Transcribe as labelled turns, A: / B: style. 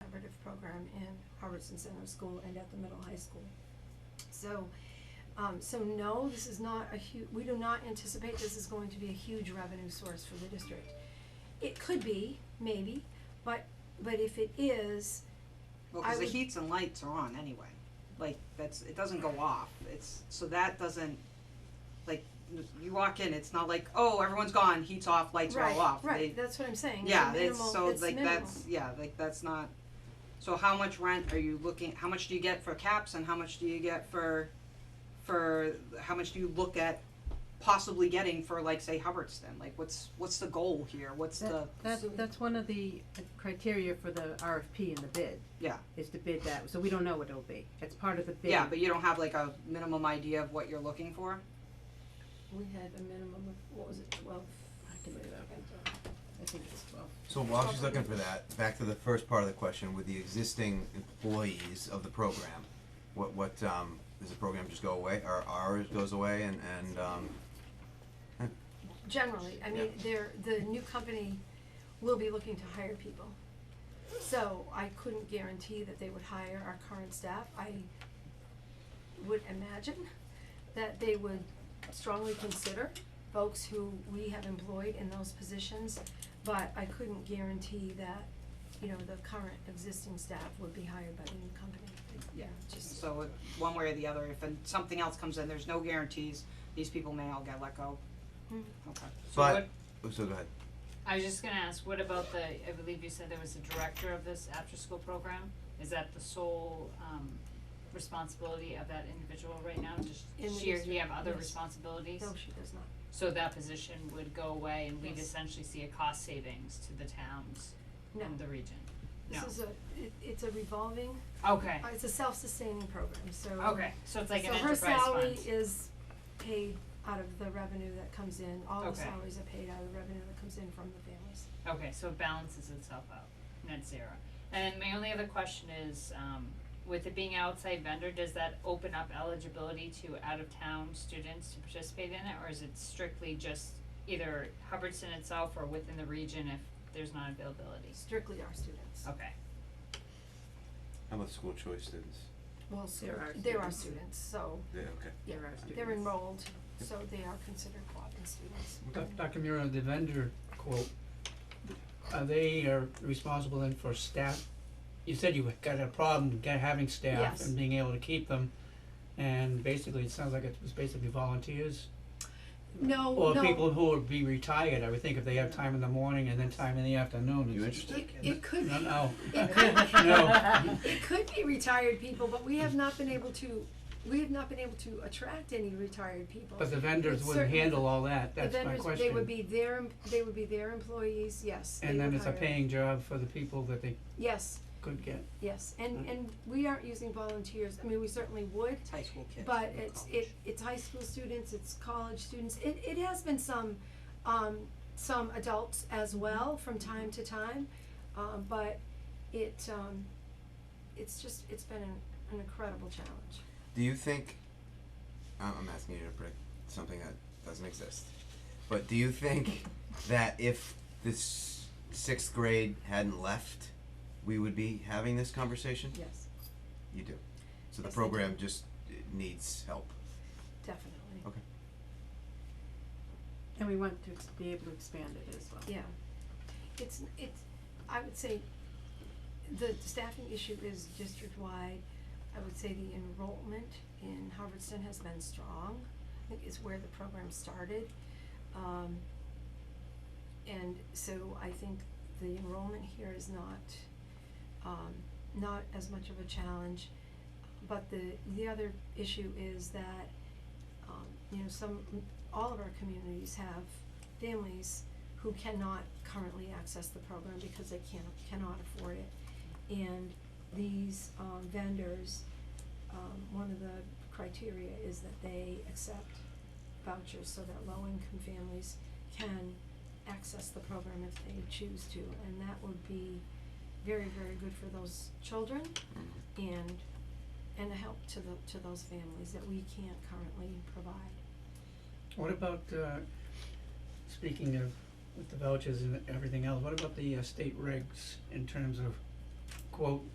A: Robertson Center School and at the middle high school. So, um, so no, this is not a hu- we do not anticipate this is going to be a huge revenue source for the district. It could be, maybe, but, but if it is,
B: Well,
A: I
B: cause the
A: would-
B: heats and lights are on anyway, like, that's, it doesn't go off, it's, so that doesn't, like, you walk in, it's not like, oh, everyone's gone, heat's off, lights are
A: right,
B: all off,
A: right,
B: they,
A: that's what I'm saying, it's
B: yeah,
A: a
B: it's,
A: minimal,
B: so
A: it's
B: like,
A: minimal.
B: that's, yeah, like, that's not, so how much rent are you looking, how much do you get for caps and how much do you get for, for, how much do you look at possibly getting for like, say, Hubbardston, like, what's, what's the goal here, what's the,
C: That, that's, that's one of the uh, criteria for the RFP and the bid,
B: yeah,
C: is to bid that, so we don't know what it'll be, it's part of the bid.
B: yeah, but you don't have like a minimum idea of what you're looking for?
A: We had a minimum of, what was it, twelve?
C: I can look it up. I think it's twelve.
D: So while she's looking for that, back to the first part of the question with the existing employees of the program. What, what, um, does the program just go away, or ours goes away and, and, um, eh,
A: Generally, I mean, they're, the new company will be looking to hire people. So I couldn't guarantee that they would hire our current staff. I would imagine that they would strongly consider folks who we have employed in those positions, but I couldn't guarantee that, you know, the current existing staff would be hired by the new company.
B: Yeah.
A: Just,
B: So if- one way or the other, if an- something else comes in, there's no guarantees, these people may all get let go.
A: Mhm.
B: Okay.
E: So
D: but,
E: what,
D: oh, so go ahead.
E: I was just gonna ask, what about the, I believe you said there was a director of this after-school program? Is that the sole, um, responsibility of that individual right now?
A: In the
E: Does she or he
A: district,
E: have other
A: yes.
E: responsibilities?
A: no, she does not.
E: So that position would go away and we'd
A: Yes.
E: essentially see a cost savings to the towns
A: No.
E: and the region?
A: This is a, it, it's a revolving,
E: Okay,
A: uh, it's a self-sustaining program, so.
E: okay, so it's like an
A: So her
E: enterprise fund?
A: salary is paid out of the revenue that comes in, all the
E: Okay.
A: salaries are paid out of the revenue that comes in from the families.
E: Okay, so it balances itself out, net zero. And my only other question is, um, with it being outside vendor, does that open up eligibility to out-of-town students to participate in it, or is it strictly just either Hubbardston itself or within the region if there's not availability?
A: Strictly our students.
E: Okay,
D: How about school choice students?
A: Well, so
C: They're our
A: they're our
C: students.
A: students, so
D: Yeah, okay.
A: Yeah,
C: There are
A: they're
C: students.
A: enrolled, so they are considered co-oping students.
F: Doc- Dr. Mira, the vendor quote, are they are responsible then for staff? You said you got a problem get- having staff
A: Yes.
F: and being able to keep them. And basically, it sounds like it was basically volunteers
A: No,
F: or
A: no.
F: people who would be retired, I would think, if they have time in the morning and then time in the afternoon.
D: You
F: It's-
D: interested?
A: It- It could
F: No,
A: be,
F: no.
A: it could,
F: No.
A: it could be retired people, but we have not been able to, we have not been able to attract any retired people.
F: But the vendors
A: It's
F: wouldn't
A: certain-
F: handle all that.
A: The
F: That's my
A: vendors,
F: question.
A: they would be their, em- they would be their employees, yes, they
F: and then
A: would
F: it's a
A: hire-
F: paying job for the people that they
A: Yes,
F: could get.
A: yes, and,
B: Mm.
A: and we aren't using volunteers, I mean, we certainly would,
B: It's high school kids.
A: but
B: no
A: it's, it,
B: college.
A: it's high school students, it's college students, it, it has been some, um, some adults as well from time to time, um, but it, um, it's just, it's been an, an incredible challenge.
D: Do you think, I'm, I'm asking you to predict something that doesn't exist, but do you think that if this sixth grade hadn't left, we would be having this conversation?
A: Yes,
D: You do. So
A: Yes,
D: the
A: I do.
D: program just uh, needs help.
A: definitely,
D: Okay.
C: And we want to ex- be able to expand it as well.
A: yeah. It's, it's, I would say, the staffing issue is district-wide, I would say the enrollment in Hubbardston has been strong, I think is where the program started. Um, and so I think the enrollment here is not, um, not as much of a challenge. But the, the other issue is that, um, you know, some, all of our communities have families who cannot currently access the program because they can't, cannot afford it. And these, um, vendors, um, one of the criteria is that they accept vouchers so that low-income families can access the program if they choose to. And that would be very, very good for those children and, and a help to the, to those families that we can't currently provide.
F: What about, uh, speaking of with the vouchers and everything else, what about the uh, state regs in terms of quote